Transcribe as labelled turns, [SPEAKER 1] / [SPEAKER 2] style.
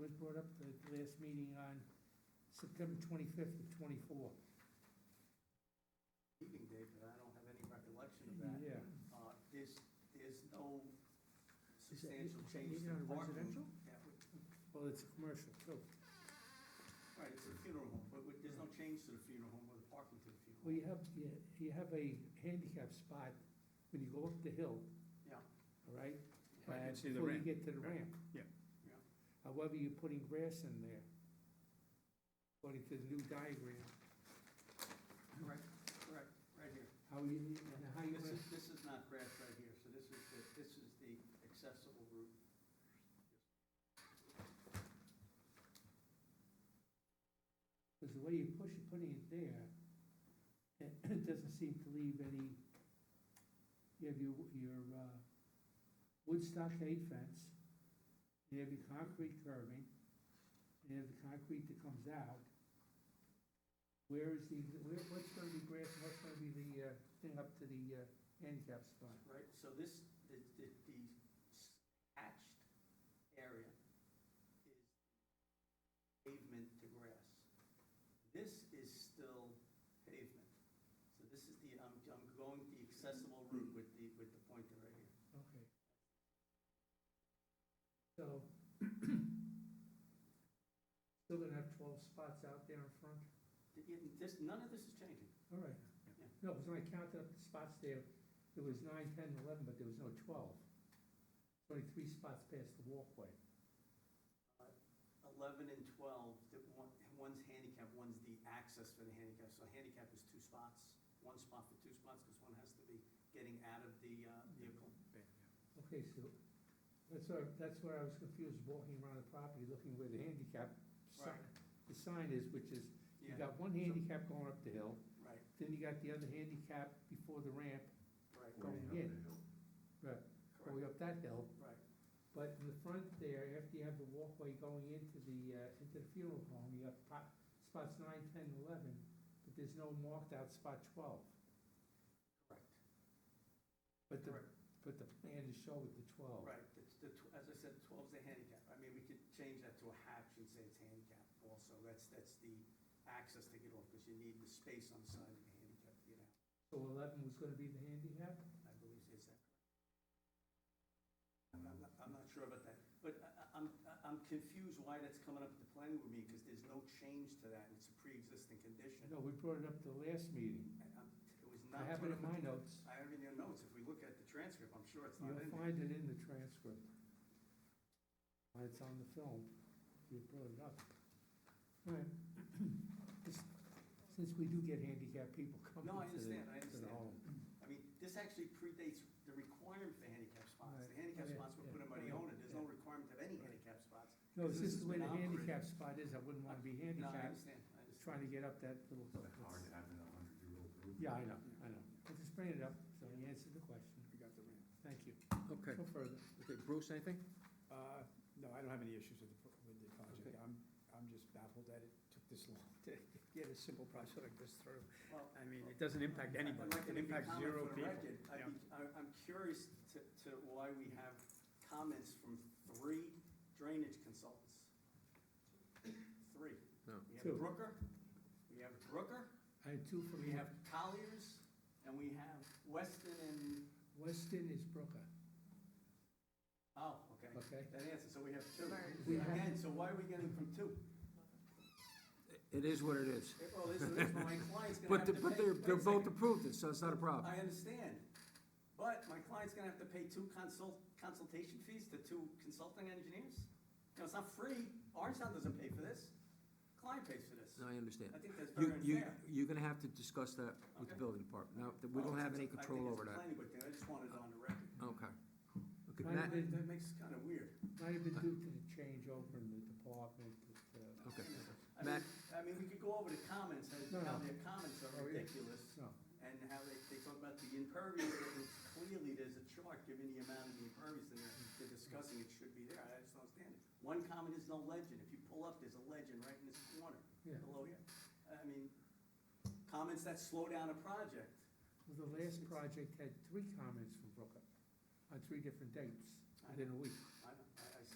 [SPEAKER 1] was brought up at the last meeting on September twenty-fifth of twenty-four.
[SPEAKER 2] meeting date, but I don't have any recollection of that.
[SPEAKER 1] Yeah.
[SPEAKER 2] Uh, There's, there's no
[SPEAKER 1] Is that-
[SPEAKER 2] substantial
[SPEAKER 1] is that
[SPEAKER 2] change
[SPEAKER 1] even
[SPEAKER 2] to
[SPEAKER 1] on
[SPEAKER 2] the
[SPEAKER 1] residential?
[SPEAKER 2] parking. that would-
[SPEAKER 1] Well, it's a commercial, too.
[SPEAKER 2] Right, it's a funeral home, but we- there's no change to the funeral home or the parking to the
[SPEAKER 1] Well,
[SPEAKER 2] funeral. home.
[SPEAKER 1] you have, you you have a handicap spot when you go up the hill,
[SPEAKER 2] Yeah,
[SPEAKER 1] all right?
[SPEAKER 3] Right, you
[SPEAKER 1] And
[SPEAKER 3] see the
[SPEAKER 1] Before you
[SPEAKER 3] ramp.
[SPEAKER 1] get to the ramp.
[SPEAKER 3] Yeah.
[SPEAKER 2] yeah.
[SPEAKER 1] However, you're putting grass in there, according to the new diagram.
[SPEAKER 2] Correct, correct, right here.
[SPEAKER 1] How you, and how you,
[SPEAKER 2] This is, this is not grass right here, so this is, the this is the accessible route.
[SPEAKER 1] because the way you push it, putting it there, it it doesn't seem to leave any, you have your, your, uh, wood stockade fence, you have your concrete curving, you have the concrete that comes out. Where is the, where, what's gonna be grass, and what's gonna be the, uh, thing up to the, uh, handicap spot?
[SPEAKER 2] Right, so this, the, the, the s- hatched area is pavement to grass. This is still pavement. So this is the, I'm, I'm going the accessible route with the, with the pointer right here.
[SPEAKER 1] Okay. So, still gonna have twelve spots out there in front?
[SPEAKER 2] Th- it- This, none of this is changing.
[SPEAKER 1] All right.
[SPEAKER 2] Yeah.
[SPEAKER 1] No, because when I counted up the spots there, there was nine, ten, eleven, but there was no twelve. Only three spots past the walkway.
[SPEAKER 2] Uh, Eleven and twelve, that one, one's handicap, one's the access for the handicap. So handicap is two spots, one spot for two spots, because one has to be getting out of the uh, vehicle.
[SPEAKER 1] Okay, so, that's where, that's where I was confused, walking around the property, looking where the handicap sign,
[SPEAKER 2] Right.
[SPEAKER 1] the sign is, which is, you
[SPEAKER 2] Yeah.
[SPEAKER 1] got one handicap going up the hill,
[SPEAKER 2] Right,
[SPEAKER 1] then you got the other handicap before the ramp
[SPEAKER 2] right.
[SPEAKER 1] going in. Right, going up that hill.
[SPEAKER 2] Right,
[SPEAKER 1] But in the front there, after you have the walkway going into the, uh, into the funeral home, you have pot, spots nine, ten, eleven, but there's no marked out spot twelve.
[SPEAKER 2] correct,
[SPEAKER 1] But the,
[SPEAKER 2] correct,
[SPEAKER 1] but the plan is show with the twelve.
[SPEAKER 2] right. That's the tw- As I said, 12's the handicap. I mean, we could change that to a hatch and say it's handicap also. That's, that's the access to get off, because you need the space on the side of the handicap to get out.
[SPEAKER 1] So eleven was gonna be the handicap?
[SPEAKER 2] I believe, is that correct? I'm not, I'm not sure about that, but I- I- I'm, I'm confused why that's coming up at the planning board meeting, because there's no change to that, and it's a pre-existing condition.
[SPEAKER 1] No, we brought it up the last meeting.
[SPEAKER 2] And I'm- It was
[SPEAKER 1] I
[SPEAKER 2] not.
[SPEAKER 1] have it in my
[SPEAKER 2] brought up-
[SPEAKER 1] notes.
[SPEAKER 2] I have it in your notes. If we look at the transcript, I'm sure it's not in
[SPEAKER 1] You'll
[SPEAKER 2] there.
[SPEAKER 1] find it in the transcript. It's on the film. You brought it up. All right. Just- Since we do get handicapped people coming
[SPEAKER 2] No, I
[SPEAKER 1] to the-
[SPEAKER 2] understand, I
[SPEAKER 1] to the
[SPEAKER 2] understand.
[SPEAKER 1] home.
[SPEAKER 2] I mean, this actually predates the requirement for handicap spots. The
[SPEAKER 1] Right. Oh,
[SPEAKER 2] handicap
[SPEAKER 1] Yeah,
[SPEAKER 2] spots were put in by the
[SPEAKER 1] yeah,
[SPEAKER 2] owner, there's no
[SPEAKER 1] yeah.
[SPEAKER 2] requirement of any handicap spots.
[SPEAKER 1] No, it's just the way the
[SPEAKER 2] Because this has been
[SPEAKER 1] handicap
[SPEAKER 2] operated.
[SPEAKER 1] spot is, I wouldn't want to be
[SPEAKER 2] No, I
[SPEAKER 1] handicapped,
[SPEAKER 2] understand, I
[SPEAKER 1] trying
[SPEAKER 2] understand.
[SPEAKER 1] to get up that little.
[SPEAKER 4] It's hard to have in a hundred-year-old room.
[SPEAKER 1] Yeah, I know, I know. I just bring it up, so you answered the question.
[SPEAKER 5] We got the ramp.
[SPEAKER 1] Thank you.
[SPEAKER 3] Okay,
[SPEAKER 1] No further.
[SPEAKER 3] okay, Bruce, anything?
[SPEAKER 5] Uh, No, I don't have any issues with the, pro- with the project. I'm, I'm just baffled that it took this long to get a simple project like this through.
[SPEAKER 2] Well,
[SPEAKER 5] I mean, it doesn't impact
[SPEAKER 2] I'd
[SPEAKER 5] anybody.
[SPEAKER 2] like to make a
[SPEAKER 5] It impacts
[SPEAKER 2] comment
[SPEAKER 5] zero
[SPEAKER 2] for the
[SPEAKER 5] people.
[SPEAKER 2] record.
[SPEAKER 5] Yeah.
[SPEAKER 2] I'd be- I- I'm curious to, to why we have comments from three drainage consultants. Three.
[SPEAKER 3] No.
[SPEAKER 2] We have
[SPEAKER 1] Two.
[SPEAKER 2] Brooker, we have Brooker,
[SPEAKER 1] And two from
[SPEAKER 2] we have
[SPEAKER 1] here.
[SPEAKER 2] Colliers, and we have Weston and
[SPEAKER 1] Weston is Brooker.
[SPEAKER 2] Oh, okay.
[SPEAKER 1] Okay.
[SPEAKER 2] That answers, so we have two.
[SPEAKER 1] We have-
[SPEAKER 2] Again, so why are we getting from two?
[SPEAKER 3] It is what it is.
[SPEAKER 2] Well, this is, this, my client's gonna
[SPEAKER 3] But,
[SPEAKER 2] have
[SPEAKER 3] the-
[SPEAKER 2] to
[SPEAKER 3] but
[SPEAKER 2] pay.
[SPEAKER 3] they're,
[SPEAKER 2] wait
[SPEAKER 3] they're
[SPEAKER 2] a
[SPEAKER 3] both
[SPEAKER 2] second.
[SPEAKER 3] approved, it, so it's not a problem.
[SPEAKER 2] I understand, but my client's gonna have to pay two consult, consultation fees to two consulting engineers? No, it's not free, Orangetown doesn't pay for this, client pays for this.
[SPEAKER 3] No, I understand.
[SPEAKER 2] I think that's
[SPEAKER 3] You-
[SPEAKER 2] very
[SPEAKER 3] you-
[SPEAKER 2] unfair.
[SPEAKER 3] You're gonna have to discuss that with the
[SPEAKER 2] Okay.
[SPEAKER 3] building department. Now, th- we don't have any
[SPEAKER 2] I think
[SPEAKER 3] control
[SPEAKER 2] it's a
[SPEAKER 3] over that.
[SPEAKER 2] planning board thing, I just wanted it on the record.
[SPEAKER 3] Okay. Okay,
[SPEAKER 1] Might have
[SPEAKER 3] that-
[SPEAKER 1] been-
[SPEAKER 2] That makes it kinda weird.
[SPEAKER 1] Might have been due to the change over in the department, but, uh,
[SPEAKER 3] Okay.
[SPEAKER 2] I mean,
[SPEAKER 3] Matt?
[SPEAKER 2] I mean, we could go over the comments, and
[SPEAKER 1] No,
[SPEAKER 2] how
[SPEAKER 1] no.
[SPEAKER 2] their comments
[SPEAKER 1] Oh,
[SPEAKER 2] are
[SPEAKER 1] yeah.
[SPEAKER 2] ridiculous.
[SPEAKER 1] no.
[SPEAKER 2] and how they, they talk about the impervious, and it's clearly there's a chart giving the amount of the impervious in there, they're discussing it should be there, I just don't understand it. One comment is no legend, if you pull up, there's a legend right in this corner,
[SPEAKER 1] Yeah.
[SPEAKER 2] below here. I mean, comments that slow down a project,
[SPEAKER 1] Well, the last project had three comments from Brooker on three different dates within a week.